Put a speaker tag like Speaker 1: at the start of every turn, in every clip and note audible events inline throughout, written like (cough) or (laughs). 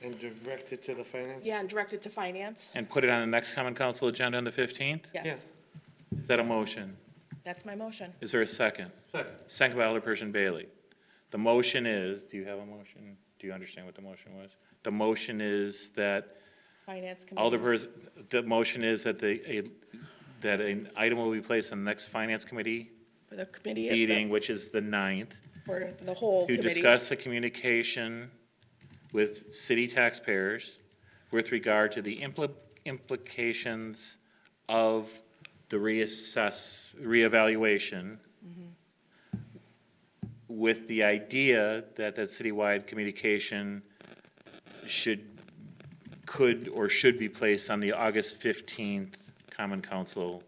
Speaker 1: And direct it to the finance?
Speaker 2: Yeah, and direct it to finance.
Speaker 3: and put it on the next common council agenda on the 15th?
Speaker 2: Yes,
Speaker 3: Is that a motion?
Speaker 2: that's my motion.
Speaker 3: Is there a second?
Speaker 1: Second.
Speaker 3: Second by Alderperson Bailey. The motion is, do you have a motion? Do you understand what the motion was? The motion is that
Speaker 2: Finance committee.
Speaker 3: Alderperson, the motion is that the, a, that an item will be placed on the next finance committee
Speaker 2: For the committee. of the-
Speaker 3: meeting, which is the 9th,
Speaker 2: For the whole
Speaker 3: to
Speaker 2: committee.
Speaker 3: discuss the communication with city taxpayers with regard to the impli- implications of the reassess, reevaluation with the idea that that citywide communication should, could or should be placed on the August 15th Common Council.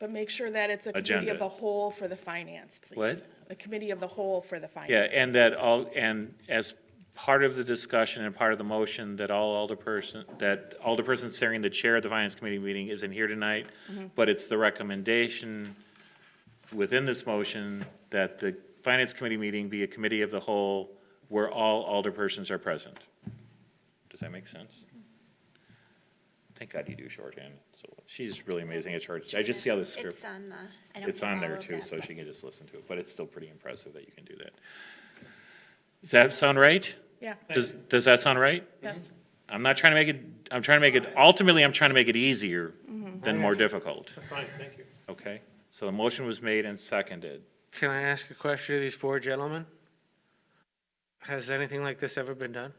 Speaker 2: But make sure that it's a committee
Speaker 3: Agenda.
Speaker 2: of the whole for the finance, please.
Speaker 3: What?
Speaker 2: A committee of the whole for the finance.
Speaker 3: Yeah, and that all, and as part of the discussion and part of the motion, that all alderperson, that alderperson serving the chair of the finance committee meeting isn't here tonight, but it's the recommendation within this motion that the finance committee meeting be a committee of the whole where all alderpersons are present. Does that make sense? Thank God you do shorthand. So she's really amazing at short. I just see how this script.
Speaker 4: It's on the, I don't
Speaker 3: It's
Speaker 4: have
Speaker 3: on
Speaker 4: all
Speaker 3: there
Speaker 4: of
Speaker 3: too,
Speaker 4: that,
Speaker 3: so
Speaker 4: but-
Speaker 3: she can just listen to it, but it's still pretty impressive that you can do that. Does that sound right?
Speaker 2: Yeah,
Speaker 3: Does, does that sound right?
Speaker 2: yes.
Speaker 3: I'm not trying to make it, I'm trying to make it, ultimately, I'm trying to make it easier
Speaker 4: Mm-hmm.
Speaker 3: than more difficult,
Speaker 1: Fine, thank you.
Speaker 3: okay? So the motion was made and seconded.
Speaker 5: Can I ask a question of these four gentlemen? Has anything like this ever been done?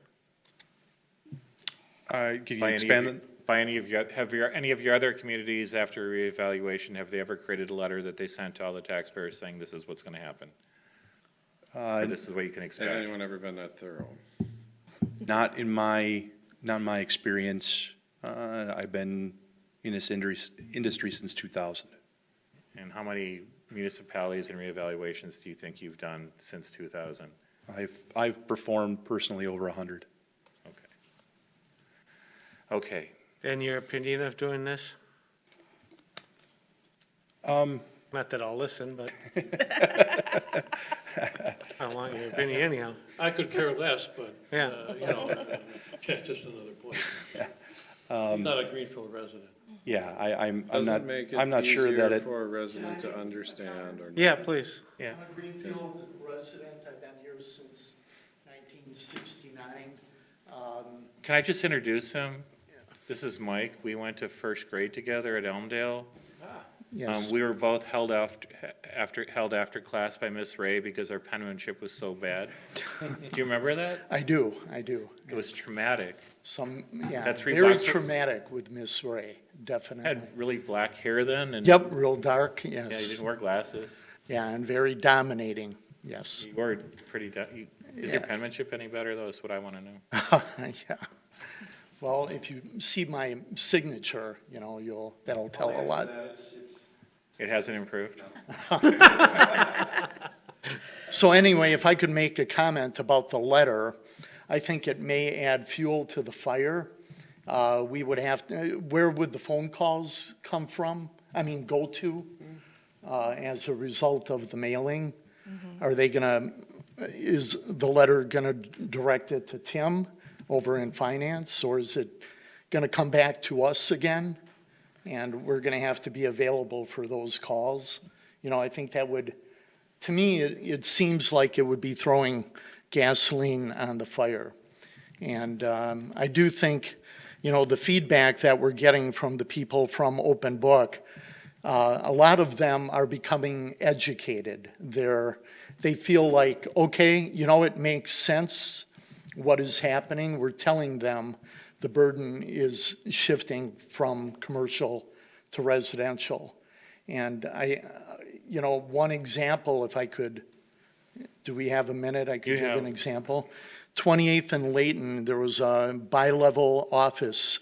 Speaker 6: Uh, Could you
Speaker 3: By any of
Speaker 6: expand
Speaker 3: you- By any of your, have your, any of your other communities after reevaluation, have they ever created a letter that they sent to all the taxpayers saying this is what's gonna happen? Or
Speaker 6: that?
Speaker 3: this is what you can expect?
Speaker 7: Has anyone ever been that thorough?
Speaker 6: Not in my, not in my experience. Uh, I've been in this industry, industry since 2000.
Speaker 3: And how many municipalities and reevaluations do you think you've done since 2000?
Speaker 6: I've, I've performed personally over 100.
Speaker 3: Okay. Okay,
Speaker 5: And your opinion of doing this?
Speaker 6: Um,
Speaker 5: Not that I'll listen, but I want your opinion anyhow.
Speaker 1: I could care less, but,
Speaker 5: Yeah.
Speaker 1: uh, you know, (laughs) that's just another point. I'm not a Greenfield resident.
Speaker 6: yeah, I, I'm, I'm not,
Speaker 7: Doesn't make
Speaker 6: I'm
Speaker 7: it
Speaker 6: not sure that
Speaker 7: easier
Speaker 6: it,
Speaker 7: for a resident to understand or not.
Speaker 5: Yeah, please.
Speaker 3: yeah,
Speaker 8: I'm a Greenfield resident, I've been here since 1969. Um,
Speaker 3: can I just introduce him? This is Mike, we went to first grade together at Elmdale. Um,
Speaker 6: yes,
Speaker 3: we were both held after, after, held after class by Miss Ray because our penmanship was so
Speaker 9: (laughs)
Speaker 3: bad. Do you remember that?
Speaker 9: I do, I do.
Speaker 3: It was traumatic.
Speaker 9: Some, yeah,
Speaker 3: That's three
Speaker 9: very
Speaker 3: boxes.
Speaker 9: traumatic with Miss Ray, definitely.
Speaker 3: Had really black hair then and.
Speaker 9: Yep, real dark,
Speaker 3: Yeah, you
Speaker 9: yes.
Speaker 3: didn't wear glasses.
Speaker 9: Yeah, and very dominating,
Speaker 3: (laughs)
Speaker 9: yes.
Speaker 3: You were pretty, du- you- is your
Speaker 9: Yeah.
Speaker 3: penmanship any better though? That's what I want to know.
Speaker 9: Yeah. Well, if you see my signature, you know, you'll, that'll tell a lot.
Speaker 3: uh, It hasn't improved?
Speaker 9: So anyway, if I could make a comment about the letter, I think it may add fuel to the fire. Uh, We would have, to- where would the phone calls come from? I mean, go to uh, as a result of the mailing? Are they going to, is the letter going to direct it to Tim over in finance? Or is it going to come back to us again? And we're going to have to be available for those calls. You know, I think that would to me, it, it seems like it would be throwing gasoline on the fire. And um, I do think, you know, the feedback that we're getting from the people from Open Book, uh, a lot of them are becoming educated. They're, they feel like, okay, you know, it makes sense what is happening. We're telling them the burden is shifting from commercial to residential. And I, you know, one example, if I could, do we have a minute? I
Speaker 3: You
Speaker 9: could give
Speaker 3: have.
Speaker 9: an example. 28th and Layton, there was a bi-level office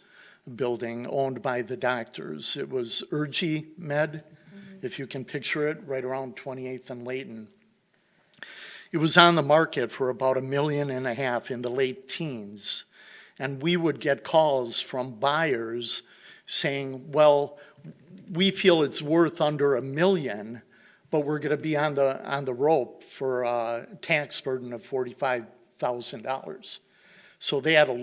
Speaker 9: building owned by the doctors. It was Urgi Med,
Speaker 3: Mm-hmm.
Speaker 9: if you can picture it, right around 28th and Layton. It was on the market for about a million and a half in the late teens. And we would get calls from buyers saying, well, we feel it's worth under a million, but we're going to be on the, on the rope for a tax burden of $45,000. So they had a